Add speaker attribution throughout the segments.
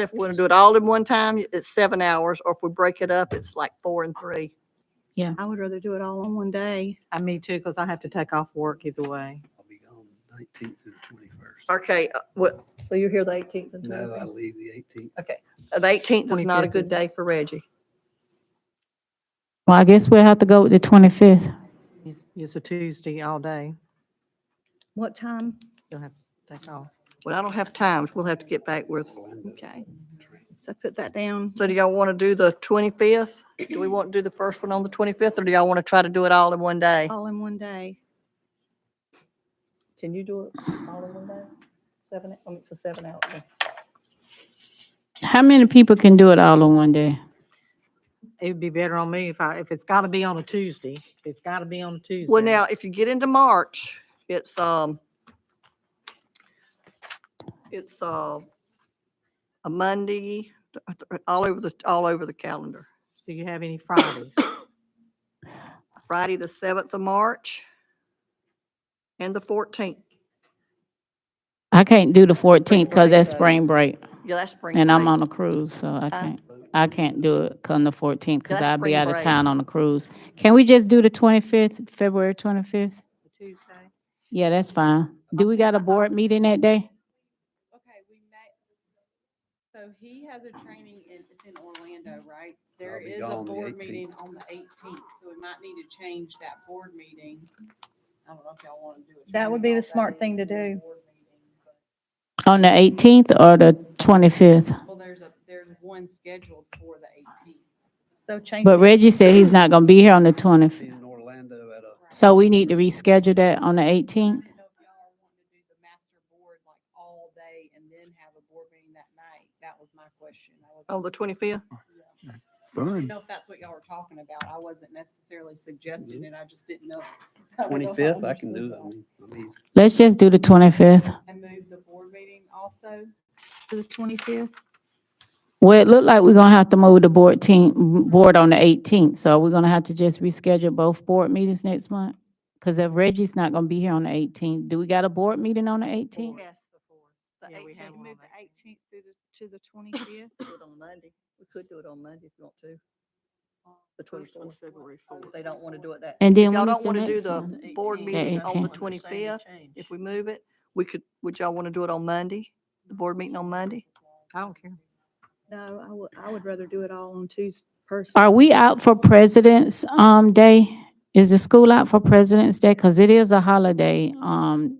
Speaker 1: If we want to do it all in one time, it's seven hours, or if we break it up, it's like four and three.
Speaker 2: I would rather do it all on one day.
Speaker 3: I me too, because I have to take off work either way.
Speaker 4: I'll be gone the nineteenth through the twenty-first.
Speaker 1: Okay, uh, what, so you're here the eighteenth and
Speaker 4: No, I
Speaker 1: twentieth?
Speaker 4: leave the eighteenth.
Speaker 1: The eighteenth is not a
Speaker 3: 25th,
Speaker 1: good
Speaker 3: is it?
Speaker 1: day for Reggie.
Speaker 5: Well, I guess we'll have to go with the twenty-fifth.
Speaker 3: It's- It's a Tuesday all day.
Speaker 2: What time?
Speaker 3: You'll have to take off.
Speaker 1: Well, I don't have times. We'll have to get back with.
Speaker 2: Okay. So put that down.
Speaker 1: So do y'all want to do the twenty-fifth? Do we want to do the first one on the twenty-fifth, or do y'all want to try to do it all in one day?
Speaker 2: All in one day.
Speaker 1: Oh, Can you do it all in one day? Seven, I mean, it's a seven hour. thing.
Speaker 5: How many people can do it all on one day?
Speaker 3: It'd be better on me if I, if it's got to be on a Tuesday. if It's got to be on a Tuesday.
Speaker 1: Well, now, if you get into March, it's, um, it's, uh, a Monday, th- th- all over the, all over the calendar.
Speaker 3: Do you have any Fridays?
Speaker 1: Friday, the seventh of March and the fourteenth.
Speaker 5: I can't do the fourteenth because
Speaker 1: break
Speaker 5: that's
Speaker 1: day.
Speaker 5: spring break
Speaker 1: Yeah, that's spring.
Speaker 5: and I'm
Speaker 1: break. Uh,
Speaker 5: on a cruise, so I can't, I can't do it come the fourteenth because
Speaker 1: That's
Speaker 5: I'll be
Speaker 1: spring
Speaker 5: out of
Speaker 1: break.
Speaker 5: town on a cruise. Can we just do the twenty-fifth, February twenty-fifth?
Speaker 3: Tuesday.
Speaker 5: Yeah, that's fine. Do we got a board meeting that day?
Speaker 6: Okay, we met, so he has a training in, it's in Orlando, right? There
Speaker 4: be
Speaker 6: is a
Speaker 4: gone the
Speaker 6: board
Speaker 4: 18th.
Speaker 6: meeting on the eighteenth, so we might need to change that board meeting. I don't know if y'all want to do it.
Speaker 2: That would be the smart thing to do.
Speaker 5: On the eighteenth or the twenty-fifth?
Speaker 6: Well, there's a, there's one scheduled for the eighteenth.
Speaker 2: So change.
Speaker 5: But Reggie said he's not gonna be here on the
Speaker 4: Be
Speaker 5: twenty-fifth.
Speaker 4: in Orlando at a,
Speaker 5: So we need to reschedule that on the eighteenth?
Speaker 6: I don't know if y'all are wanting to do the master board like all day and then have a board meeting that night. That was my question. I wasn't
Speaker 1: On Oh, the twenty-fifth?
Speaker 4: Hmm.
Speaker 6: didn't
Speaker 7: Fun.
Speaker 6: know if that's what y'all were talking about. I wasn't necessarily suggesting it. I just didn't know.
Speaker 4: Mm-hmm. twenty-fifth, I can do that one. I mean,
Speaker 5: Let's just do the twenty-fifth.
Speaker 6: And move the board meeting also.
Speaker 2: To the twenty-fifth.
Speaker 5: Well, it looked like we're gonna have to move the board team, board on the eighteenth, so we're gonna have to just reschedule both board meetings next month? Cause if Reggie's not gonna be here on the eighteenth, do we got a board meeting on the eighteenth?
Speaker 1: Yes. The
Speaker 3: Yeah, we have
Speaker 1: eighteenth.
Speaker 3: one
Speaker 2: Move
Speaker 3: on
Speaker 2: the eighteenth to the, to the twenty-fifth.
Speaker 1: Do it on Monday. We could do it on Monday if you want to. The twenty-fourth.
Speaker 6: February
Speaker 1: Oh, They don't want to do it that.
Speaker 5: And then
Speaker 1: Y'all
Speaker 5: when is
Speaker 1: don't
Speaker 5: the
Speaker 1: wanna do
Speaker 5: next
Speaker 1: the-
Speaker 5: one?
Speaker 1: board
Speaker 5: meeting on the
Speaker 1: 25th, If we move it, we could, would y'all want to do it on Monday? The board meeting on Monday?
Speaker 3: I don't care.
Speaker 2: No, I would, I would rather do it all on Tuesday. person.
Speaker 5: Are we out for President's, um, Day? Is the school out for President's Day? Cause it is a holiday, um,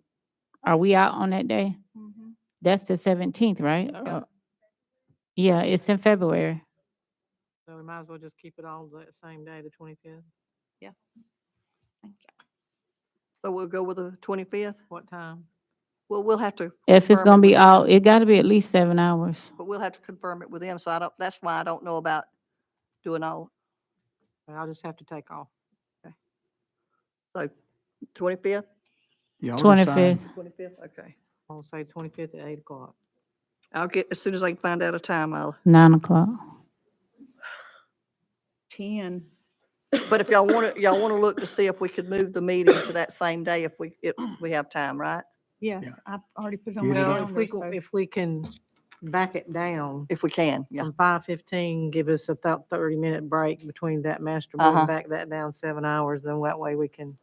Speaker 5: are we out on that day?
Speaker 2: Mhm.
Speaker 5: That's the seventeenth, right? Uh, Yeah, it's in February.
Speaker 3: So we might as well just keep it all the same day, the twenty-fifth.
Speaker 1: So we'll go with the twenty-fifth?
Speaker 3: What time?
Speaker 1: Well, we'll have to.
Speaker 5: If
Speaker 1: confirm
Speaker 5: it's
Speaker 1: it
Speaker 5: gonna be
Speaker 1: with
Speaker 5: all,
Speaker 1: them,
Speaker 5: it gotta be at least seven hours.
Speaker 1: But we'll have to confirm it with them, so I don't, that's why I don't know about doing all,
Speaker 3: I'll just have to take off.
Speaker 1: so twenty-fifth?
Speaker 7: Y'all decide.
Speaker 5: Twenty-fifth.
Speaker 1: Twenty-fifth, okay.
Speaker 3: I'll say twenty-fifth at eight o'clock.
Speaker 1: I'll get, as soon as I can find out a time, I'll,
Speaker 5: Nine o'clock.
Speaker 2: Ten.
Speaker 1: but if y'all want to, y'all want to look to see if we could move the meeting to that same day if we, if we have time, right?
Speaker 2: Yes,
Speaker 7: Yeah.
Speaker 2: I've already put it on
Speaker 7: Get
Speaker 2: my
Speaker 7: it
Speaker 3: Well, if
Speaker 2: calendar.
Speaker 3: we, go-
Speaker 2: so-
Speaker 3: if we can back it down
Speaker 1: If we can, yeah.
Speaker 3: from five fifteen, give us about thirty minute break between that master
Speaker 1: Uh-huh.
Speaker 3: board, back that down seven hours, then that way we can,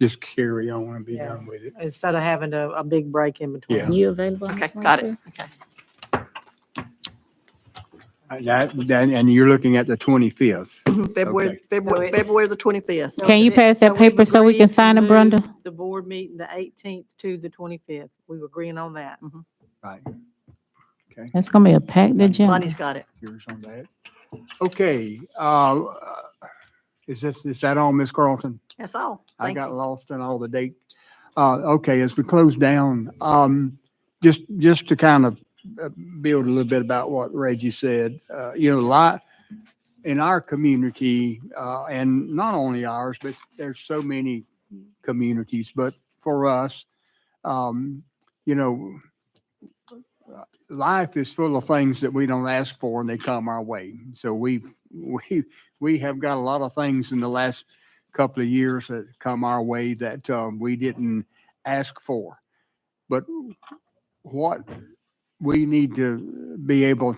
Speaker 7: Just carry on and be
Speaker 3: Yeah.
Speaker 7: done with it.
Speaker 3: instead of having a, a big break in between.
Speaker 7: Yeah.
Speaker 5: You available?
Speaker 1: Okay, got it.
Speaker 7: Uh, That, that, and you're looking at the twenty-fifth.
Speaker 1: February,
Speaker 7: Okay.
Speaker 1: February,
Speaker 3: it-
Speaker 1: February the twenty-fifth.
Speaker 3: So
Speaker 5: Can you
Speaker 3: it-
Speaker 5: pass that
Speaker 3: we've
Speaker 5: paper so we
Speaker 3: agreed
Speaker 5: can
Speaker 3: to
Speaker 5: sign it,
Speaker 3: move
Speaker 5: Brenda?
Speaker 3: The board meeting, the eighteenth to the twenty-fifth. We were agreeing on that.
Speaker 7: Right. Okay,
Speaker 5: That's gonna be a packed agenda.
Speaker 1: Lonnie's got it.
Speaker 7: yours on that. Okay, uh, is this, is that all, Miss Carlton?
Speaker 1: That's all.
Speaker 7: I
Speaker 1: Thank
Speaker 7: got
Speaker 1: you.
Speaker 7: lost in all the date. Uh, okay, as we close down, um, just, just to kind of uh, build a little bit about what Reggie said, uh, you know, a lot in our community, uh, and not only ours, but there's so many communities, but for us, um, you know, life is full of things that we don't ask for and they come our way. So we, we, we have got a lot of things in the last couple of years that come our way that um, we didn't ask for. But what we need to be able